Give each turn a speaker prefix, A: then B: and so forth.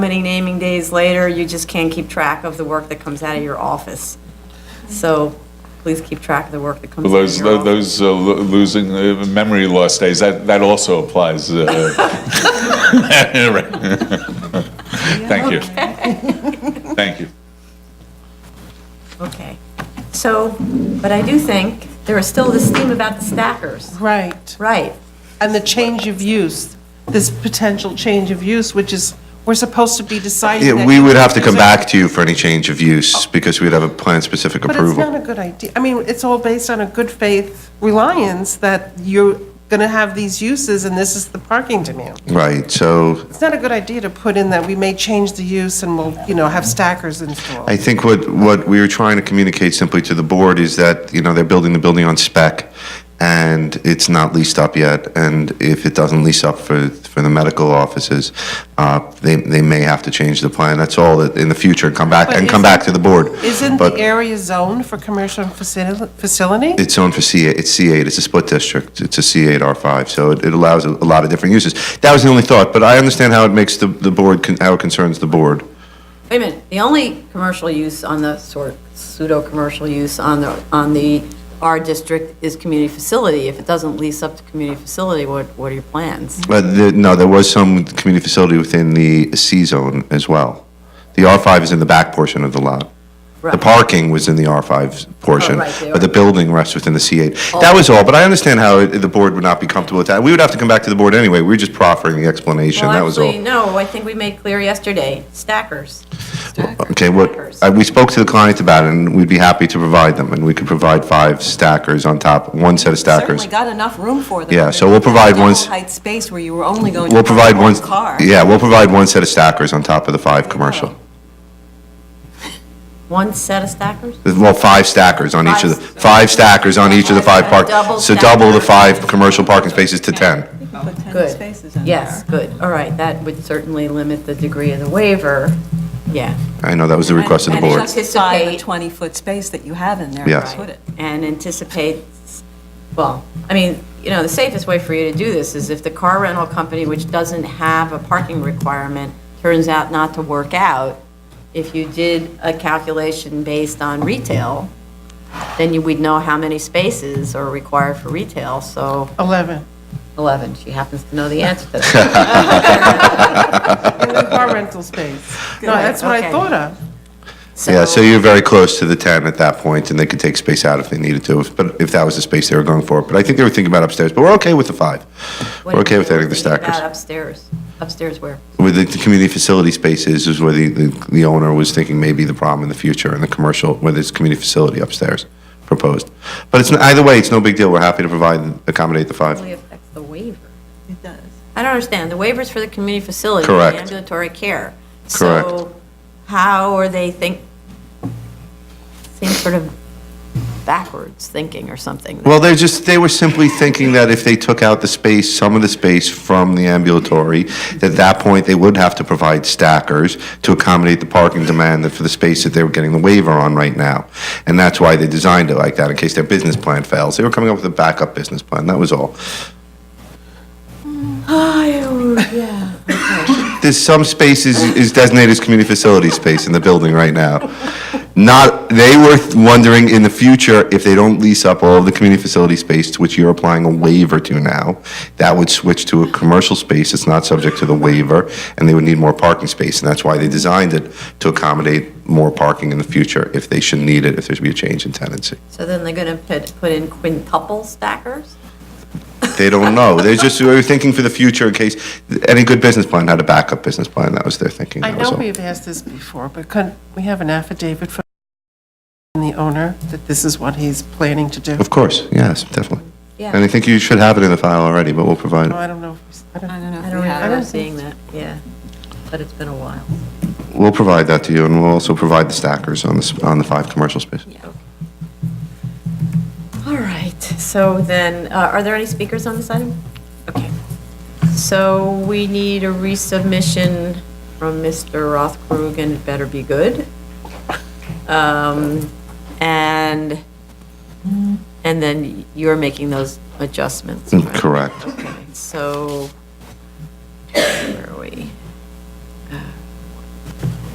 A: many naming days later, you just can't keep track of the work that comes out of your office. So please keep track of the work that comes out of
B: Those,
A: your office.
B: those uh, lo- losing, uh, memory loss days, that, that also applies. uh, right. Thank you. Thank you.
A: Okay. So, but I do think there is still this theme about the stackers.
C: Right,
A: Right.
C: and the change of use, this potential change of use, which is, we're supposed to be deciding.
D: Yeah,
C: that
D: we would have to
C: these
D: come
C: are-
D: back to you for any change of use, because we'd have a plan-specific
C: Oh. But it's not
D: approval.
C: a good idea. I mean, it's all based on a good faith reliance that you're going to have these uses and this is the parking demand.
D: Right, so
C: It's not a good idea to put in that we may change the use and we'll, you know, have stackers installed.
D: I think what, what we were trying to communicate simply to the board is that, you know, they're building the building on spec, and it's not leased up yet, and if it doesn't lease up for, for the medical offices, uh, they, they may have to change the plan, that's all, that in the future, and come back,
C: But
D: and come
C: isn't-
D: back to the board.
C: Isn't the
D: But
C: area zoned for commercial facili- facility?
D: It's zoned for C8, it's C8, it's a split district, it's a C8, R5, so it it allows a a lot of different uses. That was the only thought, but I understand how it makes the, the board, con- how it concerns the board.
A: Wait a minute, the only commercial use on the sort, pseudo-commercial use on the, on the R district is community facility. If it doesn't lease up to community facility, what, what are your plans?
D: But Uh, the- no, there was some community facility within the C zone as well. The R5 is in the back portion of the lot. The
A: Right. Oh,
D: parking was in the R5 portion,
A: right, Oh. the
D: but the
A: R5.
D: building rests within the C8. That was all, but I understand how it- the board would not be comfortable with that. We would have to come back to the board anyway, we were just proffering the explanation, that was all.
A: Well, actually, no, I think we made clear yesterday, stackers.
D: Okay, what,
A: Stackers.
D: uh, we spoke to the client about it, and we'd be happy to provide them, and we could provide five stackers on top, one set of stackers.
E: certainly got enough room for them.
D: Yeah, so we'll provide
E: Double
D: ones-
E: height space where you were only going to.
D: We'll provide
E: park
D: one,
E: one car. Oh.
D: yeah, we'll provide one set of stackers on top of the five commercial.
A: One set of stackers?
D: Well, five stackers on each of the, five stackers on each of the five park,
A: Double
D: so double the
A: stacker.
D: five commercial parking spaces to 10.
E: Put 10
A: Good.
E: spaces in
A: Yes, good, all right, that would certainly limit the degree of the waiver, yeah.
D: I know, that was the request of the
E: And
D: board.
E: justify the
A: Anticipate-
E: 20-foot space that you have in there.
D: Yes.
E: to Put it.
A: And anticipate, well, I mean, you know, the safest way for you to do this is if the car rental company, which doesn't have a parking requirement, turns out not to work out, if you did a calculation based on retail, then you would know how many spaces are required for retail, so
C: 11.
A: 11, she happens to know the answer to that.
C: Car rental space. No, that's what I
A: okay.
C: thought of.
D: Yeah, so you're very close to the 10 at that point, and they could take space out if they needed to, if- but if that was the space they were going for. But I think they were thinking about upstairs, but we're okay with the five.
A: What
D: We're okay with
A: do you
D: adding the
A: think about
D: stackers.
A: Upstairs, upstairs where?
D: With the, the community facility spaces is where the, the, the owner was thinking maybe the problem in the future, and the commercial, where there's community facility upstairs proposed. But it's, n- either way, it's no big deal, we're happy to provide, accommodate the five.
A: Really affects the waiver.
E: It does.
A: I don't understand, the waiver's for the community facility. the
D: Correct.
A: Ambulatory care.
D: Correct.
A: So how are they think, seems sort of backwards thinking or something.
D: Well, they're just, they were simply thinking that if they took out the space, some of the space from the ambulatory, that at that point, they would have to provide stackers to accommodate the parking demand that- for the space that they were getting the waiver on right now. And that's why they designed it like that, in case their business plan fails. They were coming up with a backup business plan, that was all. There's some spaces is designated as community facility space in the building right now. Not, they were wondering in the future, if they don't lease up all of the community facility space, to which you're applying a waiver to now, that would switch to a commercial space that's not subject to the waiver, and they would need more parking space, and that's why they designed it to accommodate more parking in the future, if they should need it, if there's be a change in tenancy.
A: So then they're going to put, put in quintuple stackers?
D: They don't know, they're just, they were thinking for the future in case, any good business plan had a backup business plan, that was their thinking,
C: I
D: that was
C: know
D: all.
C: we've asked this before, but could, we have an affidavit from the owner that this is what he's planning to do?
D: Of course, yes, definitely.
A: Yeah.
D: And I think you should have it in the file already, but we'll provide
C: No,
D: it.
C: I don't know. if we- I
E: I
C: don't-
E: don't know
A: I
E: if
A: don't
E: we have.
A: remember
C: don't
A: seeing that, yeah. But it's been a while.
D: We'll provide that to you, and we'll also provide the stackers on the, s- on the five commercial spaces.
A: All right, so then, uh, are there any speakers on this item? Okay. So we need a resubmission from Mr. Rothkrug, and it better be good. Um, And, and then you're making those adjustments. right?
D: Correct.
A: Okay, So, where are we?